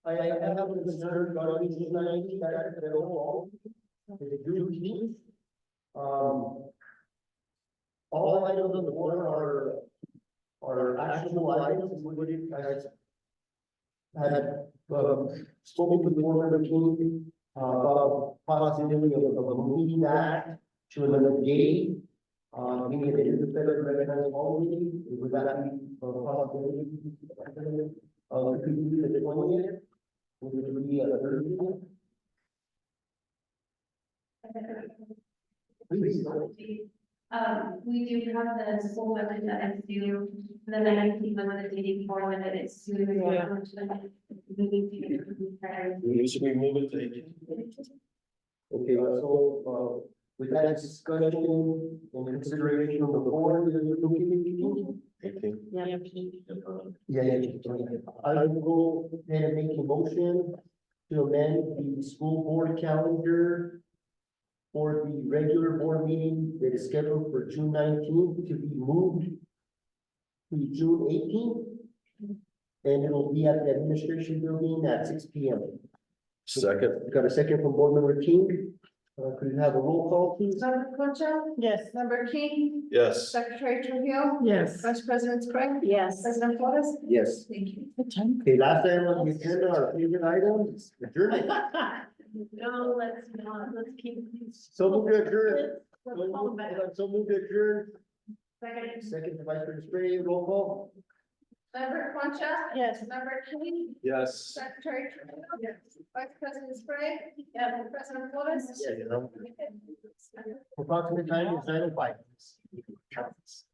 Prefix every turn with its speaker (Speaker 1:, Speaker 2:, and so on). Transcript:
Speaker 1: I, I have a concern about these ninety that that overall. They do keep. Um. All items on the board are, are actionable items, and what you guys. Had, um, spoken with the board member team, uh, about possibility of, of moving that to another day. Uh, meaning if it is a federal recognized holiday, would that be a possibility? Uh, could we do the twentieth? Would it be a Thursday? Please.
Speaker 2: Um, we do have the school budget that is due, the nineteenth, one the day before, when it is due. we
Speaker 3: Yeah.
Speaker 2: want to, like, we need to be prepared.
Speaker 4: Should we move it to the
Speaker 1: Okay, uh, so, uh, with that discussion and consideration of the board, is it okay with you?
Speaker 4: eighteenth?
Speaker 3: Yeah.
Speaker 1: Yeah, yeah, yeah. I will go ahead and make a motion to amend the school board calendar for the regular board meeting that is scheduled for June nineteenth to be moved to June eighteenth. And it'll be at the administration building at six P M.
Speaker 4: Second,
Speaker 1: Got a second from board member King. Uh, could you have a roll call, please?
Speaker 5: Member Concha,
Speaker 3: Yes.
Speaker 5: member King,
Speaker 4: yes.
Speaker 5: Secretary Trujillo,
Speaker 3: Yes.
Speaker 5: Vice President Craig,
Speaker 3: Yes.
Speaker 5: President Flores.
Speaker 1: Yes.
Speaker 5: Thank you.
Speaker 1: Okay, last item on the agenda, our favorite item, adjournment.
Speaker 2: No, let's not, let's keep.
Speaker 1: So move to adjourn.
Speaker 2: Let's hold back.
Speaker 1: So move to adjourn.
Speaker 2: Second,
Speaker 1: Second, the Vice President Spray, roll call.
Speaker 5: Member Concha,
Speaker 3: Yes.
Speaker 5: member King,
Speaker 4: Yes.
Speaker 5: Secretary Trujillo, Vice President Craig, yeah, President Flores.
Speaker 1: Yeah, you know. Approximate time is nine oh five.